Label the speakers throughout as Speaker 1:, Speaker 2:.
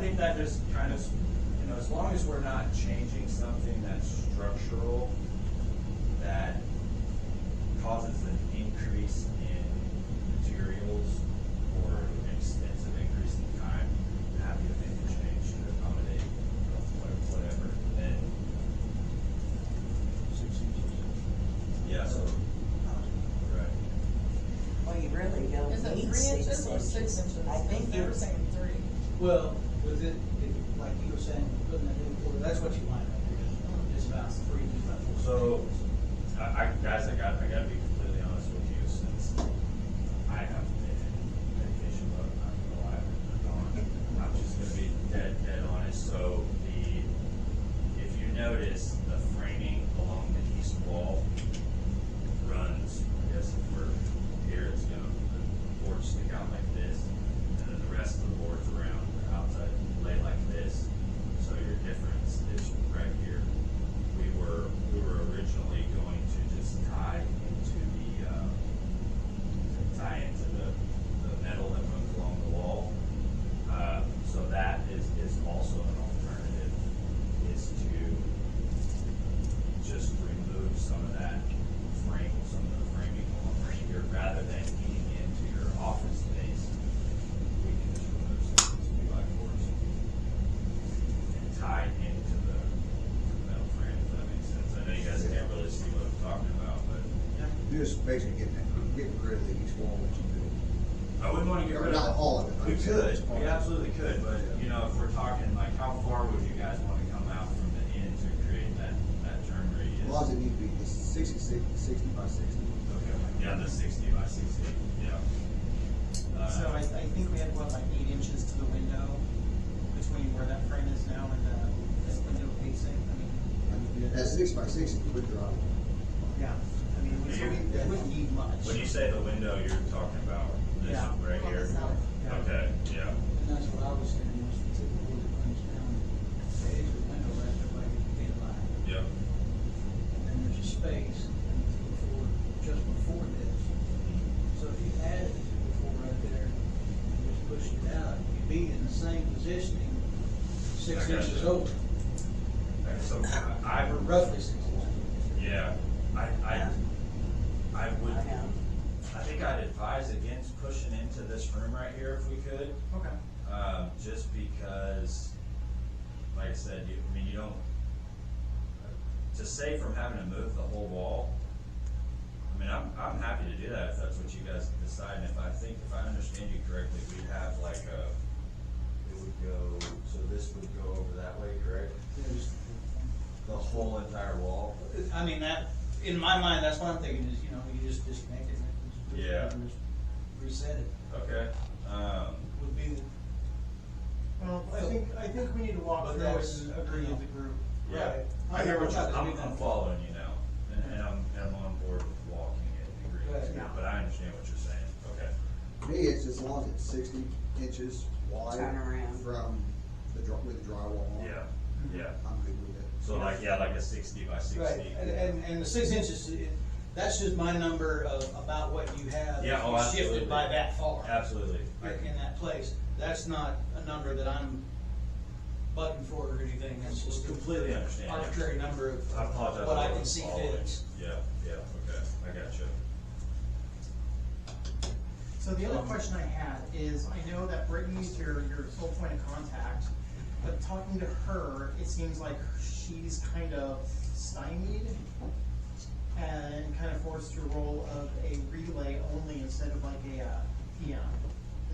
Speaker 1: think that just kind of, you know, as long as we're not changing something that's structural, that causes an increase in materials or an extensive increase in time, I'm happy to make the change to accommodate you know, what- whatever, and, yeah, so, right.
Speaker 2: Well, you really don't
Speaker 3: Is it
Speaker 2: need
Speaker 3: three
Speaker 2: six
Speaker 3: inches or six inches?
Speaker 2: I think
Speaker 3: They
Speaker 2: you're,
Speaker 3: were saying three.
Speaker 4: Well, was it, if, like you were saying, putting that in for, that's what you line up here, just about three, just about four.
Speaker 1: So, I, I, guys, I got, I gotta be completely honest with you, since I have been in vacation mode, I'm not gonna lie, I've been gone. I'm just gonna be dead, dead honest, so the, if you notice, the framing along the east wall runs, I guess if we're here, it's gonna, the boards stick out like this, and then the rest of the boards around the outside lay like this, so your difference is right here. We were, we were originally going to just tie into the, uh, tie into the, the metal that runs along the wall. Uh, so that is, is also an alternative, is to just remove some of that frame, some of the framing along right here, rather than eating into your office space. We can just remove some of these two by fours and tie it into the metal frame, if that makes sense. I know you guys can't really see what I'm talking about, but
Speaker 5: You're just basically getting, that- getting rid of these walls that you built.
Speaker 1: I wouldn't wanna get
Speaker 5: Or
Speaker 1: rid of.
Speaker 5: not all of it,
Speaker 1: We
Speaker 5: like I said,
Speaker 1: could,
Speaker 5: just part
Speaker 1: we
Speaker 5: of it.
Speaker 1: absolutely could, but, you know, if we're talking, like, how far would you guys wanna come out from the end to create that, that turn radius?
Speaker 5: Laws that need to be it's 60 60 60 by sixty.
Speaker 1: Okay, yeah, the sixty by sixty, yeah. Uh,
Speaker 6: So I, I think we had, what, like eight inches to the window between where that frame is now and uh, the, this window facing, I mean,
Speaker 5: That six by sixty is with your,
Speaker 6: yeah, I mean, we
Speaker 1: Yeah.
Speaker 6: wouldn't, it wouldn't need much.
Speaker 1: When you say the window, you're talking about this
Speaker 6: Yeah.
Speaker 1: right
Speaker 3: On
Speaker 1: here?
Speaker 3: the side.
Speaker 6: Yeah.
Speaker 1: Okay, yeah,
Speaker 4: And that's what I was saying, was to take the one that runs down, the edge of the window, that's the way you get line.
Speaker 1: yeah,
Speaker 4: And then there's a space and it's before, just before this. So if you added it to before right there, and just pushed it out, you'd be in the same positioning,
Speaker 1: I
Speaker 4: six
Speaker 1: got
Speaker 4: inches
Speaker 1: you.
Speaker 4: over,
Speaker 1: Okay, so I- I,
Speaker 4: or roughly six inches.
Speaker 1: yeah, I, I, I
Speaker 2: I
Speaker 1: would,
Speaker 2: know.
Speaker 1: I think I'd advise against pushing into this room right here if we could.
Speaker 6: Okay,
Speaker 1: Um, just because, like I said, you, I mean, you don't, to save from having to move the whole wall, I mean, I'm, I'm happy to do that if that's what you guys decide, and if I think, if I understand you correctly, we'd have like a, it would go, so this would go over that way, correct?
Speaker 4: There's-
Speaker 1: The whole entire wall?
Speaker 4: I mean, that, in my mind, that's what I'm thinking is, you know, you just disconnect it. and just-
Speaker 1: Yeah.
Speaker 4: and just Reset it,
Speaker 1: Okay, um,
Speaker 4: would be the.
Speaker 6: well,
Speaker 4: I think-
Speaker 6: I think we need to
Speaker 4: But
Speaker 6: walk
Speaker 4: through that's- it and agree as a
Speaker 6: group.
Speaker 1: yeah.
Speaker 4: Right.
Speaker 1: I hear what you're,
Speaker 4: I'm-
Speaker 1: I'm, I'm following you now, and, and I'm, and I'm on board with walking it, agreeing with
Speaker 4: Right.
Speaker 1: you, but I understand what you're saying, okay.
Speaker 5: me, it's as long as it's sixty inches wide.
Speaker 2: Turn around.
Speaker 5: From the dr with the drywall on.
Speaker 1: Yeah, yeah.
Speaker 5: I'm good with it.
Speaker 1: So like, yeah, like a sixty by sixty.
Speaker 4: Mm-hmm. Right, and, and, and the six inches, it- that's just my number of about what you have.
Speaker 1: Yeah, oh, absolutely.
Speaker 4: Shifted by that far.
Speaker 1: Absolutely. I
Speaker 4: in-
Speaker 1: can-
Speaker 4: in that place, that's not a number that I'm butting for or anything, that's just
Speaker 1: Completely understand.
Speaker 4: arbitrary number of
Speaker 1: I apologize.
Speaker 4: what I can
Speaker 1: wasn't
Speaker 4: see
Speaker 1: following.
Speaker 4: fit.
Speaker 1: Yeah, yeah, okay, I got you.
Speaker 6: So the other question I had is, I know that Brittany's your, your sole point of contact, but talking to her, it seems like she's kind of stymied and kind of forced to roll of a relay only instead of like a, uh, peon.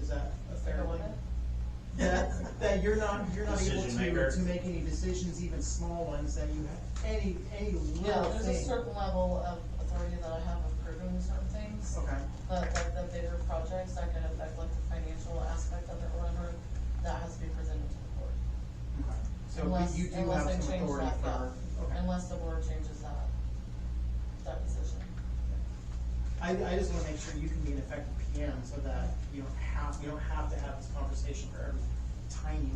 Speaker 6: Is that a fair
Speaker 3: Fair
Speaker 6: one?
Speaker 3: enough.
Speaker 6: That, that you're not, you're not able
Speaker 1: Decision maker.
Speaker 6: to, to make any decisions, even small ones, that you have any, any
Speaker 3: Yeah,
Speaker 6: little
Speaker 3: there's a
Speaker 6: thing.
Speaker 3: certain level of authority that I have approving certain things.
Speaker 6: Okay,
Speaker 3: But like the bigger projects that could affect like the financial aspect of it or whatever, that has to be presented to the board.
Speaker 6: okay. So
Speaker 3: Unless-
Speaker 6: you- you do
Speaker 3: unless
Speaker 6: have
Speaker 3: they
Speaker 6: some
Speaker 3: change
Speaker 6: authority
Speaker 3: that,
Speaker 6: for,
Speaker 3: yeah.
Speaker 6: okay.
Speaker 3: Unless the board changes that, that decision.
Speaker 6: I, I just wanna make sure you can be an effective PM so that you don't have, you don't have to have this conversation for every tiny